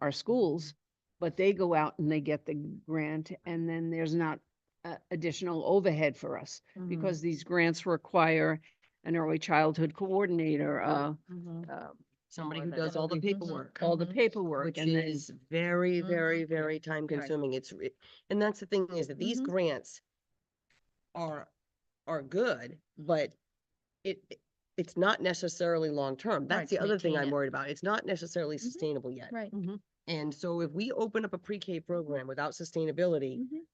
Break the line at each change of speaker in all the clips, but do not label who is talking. our schools, but they go out and they get the grant and then there's not uh, additional overhead for us
Mm-hmm.
Mm.
because these grants require an early childhood coordinator, uh, uh,
Somebody
Or
who
the-
does all the
Mhm.
paperwork,
all the
Mhm.
paperwork
Mm-hmm. which
and then
is very,
Mhm.
very, very time consuming. It's, re- and that's the thing is that these
Mhm.
grants are, are good, but it, it- it's not necessarily long-term. That's the
to
other thing
maintain
I'm
it.
worried about. It's not necessarily sustainable yet.
Right.
And so if we open up a pre-K program without sustainability,
Mm-hmm.
Mhm.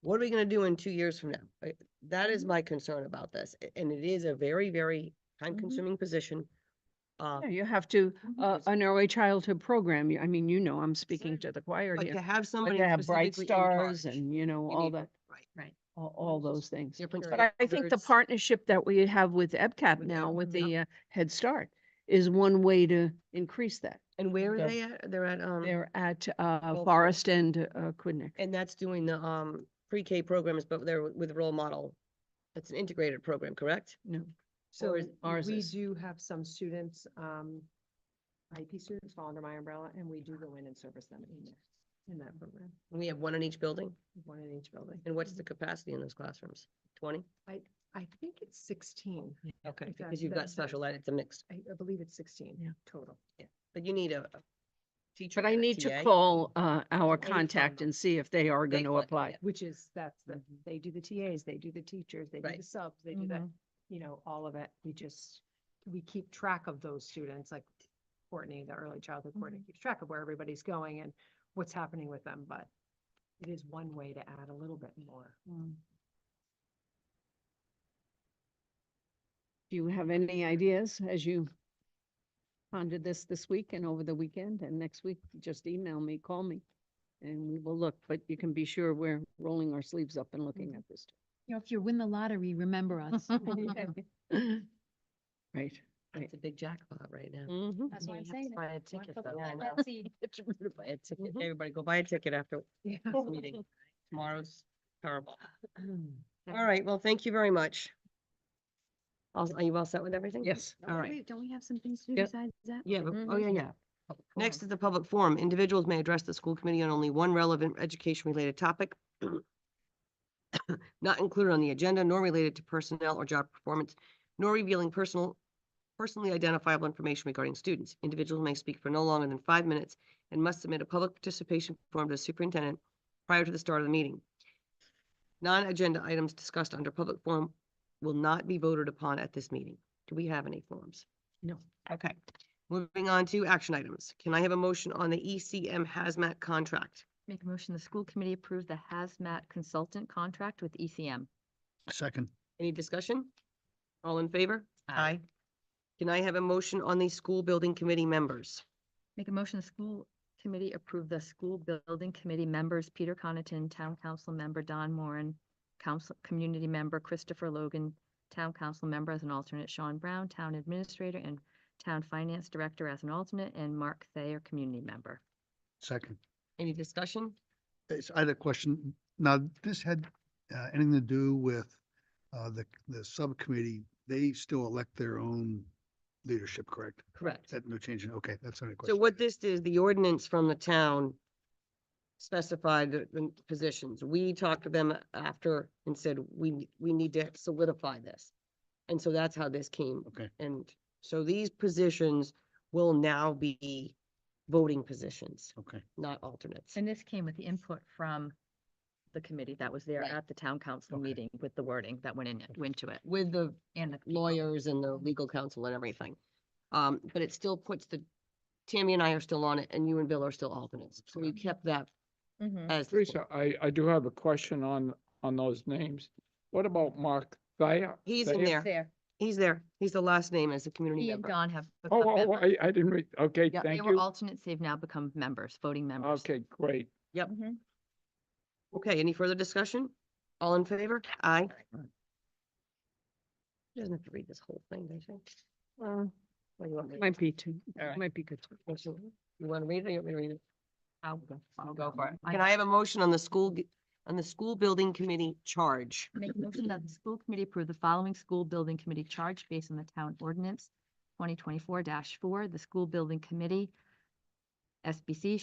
what are we gonna do in two years from now? Like, That is my concern about this, a- and it is a very, very time-consuming position. Uh,
Yeah, you have to,
Mm-hmm.
Mhm.
uh, an early childhood program. you- I mean, you know, I'm speaking to the choir
but
here.
to have
But
somebody
to have bright
specifically in
stars
charge,
and, you know,
you
all
need-
that,
Right.
all, all those things.
Different
But I, I think the
standards.
partnership that we have with EBCAP
With
now,
Eb-
with
yep.
the uh, Head Start, is one way to increase that.
And where are
Yeah.
they at? They're at, um,
They're at, uh,
Well-
Forest and, uh, Quidneck.
and that's doing the, um, pre-K programs, but they're with role model. That's an integrated program, correct?
No,
So
Or
it-
ours
we
is.
do have some students, um, IEP students fall under my umbrella and we do go in and service them in there, in that program,
We have one in each building,
one in each building.
and what's the capacity in those classrooms? Twenty?
I think it's sixteen.
Okay,
Exactly.
because you've
That-
got
that-
special ed, it's a mixed,
I, I believe it's sixteen
Yeah.
total.
but you need a a teacher.
But I
and a
need to
TA.
call, uh, our
phone
contact
them.
and see if they are
They
gonna
would,
apply.
yeah.
Which is, that's the, they do the TAs, they do the teachers, they do
Mm. Right. Mm-hmm.
the subs, they do
Mm-hmm.
the, you know, all of it. We just, we keep track of those students, like Courtney, the early
Mm-hmm.
childhood coordinator keeps track of where everybody's going and what's happening with them, but it is one way to add a little bit more.
Do you have any ideas as you pondered this this week and over the weekend and next week? Just email me, call me, and we will look. But you can be sure we're rolling our sleeves up and looking at this.
You know, if you win the lottery, remember us.
Mm-hmm.
too. Right, right.
It's a big jackpot right now.
Mm-hmm.
Mhm.
That's why I'm
You have to
saying it.
Buy a
Why
ticket
put
though.
that
I
in
know.
that seed?
Get you to Buy a ticket.
Mhm.
Everybody go buy a ticket after
Yeah.
this meeting. Tomorrow's terrible. All right, well, thank you very much. All- Are you all set with everything?
Yes,
All
Oh,
right.
wait, Don't we have some things to do
Yep.
besides that?
Yeah, but, oh, yeah,
Mhm.
yeah. Next is the public forum. Individuals may address the school committee on only one relevant education-related topic, not included on the agenda, nor related to personnel or job performance, nor revealing personal, personally identifiable information regarding students. Individuals may speak for no longer than five minutes and must submit a public participation form to the superintendent prior to the start of the meeting. Non-agenda items discussed under public forum will not be voted upon at this meeting. Do we have any forums?
No.
Okay. Moving on to action items. Can I have a motion on the ECM hazmat contract?
Make a motion, the school committee approve the hazmat consultant contract with E ECM.
Second,
Any discussion? All in favor?
Uh,
Aye.
Can I have a motion on the school building committee members?
Make a motion, the school committee approve the school building committee members, Peter Connaughton, town council member Don Moran, council, community member Christopher Logan, town council member as an alternate Sean Brown, town administrator and town finance director as an alternate, and Mark Thayer, community member.
second.
Any discussion?
It's, I had a question. Now, this had uh, anything to do with uh, the, the subcommittee, they still elect their own leadership, correct?
Correct.
That no change, in- okay, that's not a question.
So what this is, the ordinance from the town specified the, the positions. We talked to them after and said, we, we need to solidify this. And so that's how this came.
Okay.
And so these positions will now be voting positions,
Okay,
not alternates.
And this came with the input from the committee that was there
Right.
at the town council
Okay.
meeting with the wording that went in, it- went to it.
with the
And the
lawyers and the legal counsel and everything. Um, but it still puts the, Tammy and I are still on it and you and Bill are still alternates. So we kept that as. the-
Teresa, I, I do have a question on, on those names. What about Mark Thayer?
He's in
Thayer?
there. He's there. He's the last name as a community
He and
member.
Don have.
Oh,
become
oh, oh,
members.
I, I didn't read, okay,
Yeah,
They
thank
were
you.
alternates, they've now become members, voting members.
Okay, great.
Okay, any further discussion? All in favor? Aye. She Doesn't have to read this whole thing, does she? Well, what do you want me to-
might be too,
All right.
might be good.
what You you wanna read it or you want me to read it?
I'll
I'll
I'll
go for it.
I-
Can I have a motion on the school, g- on the school building committee charge?
Make a motion that the school committee approve the following school building committee charge based on the town ordinance twenty twenty-four four. The school building committee, SBC,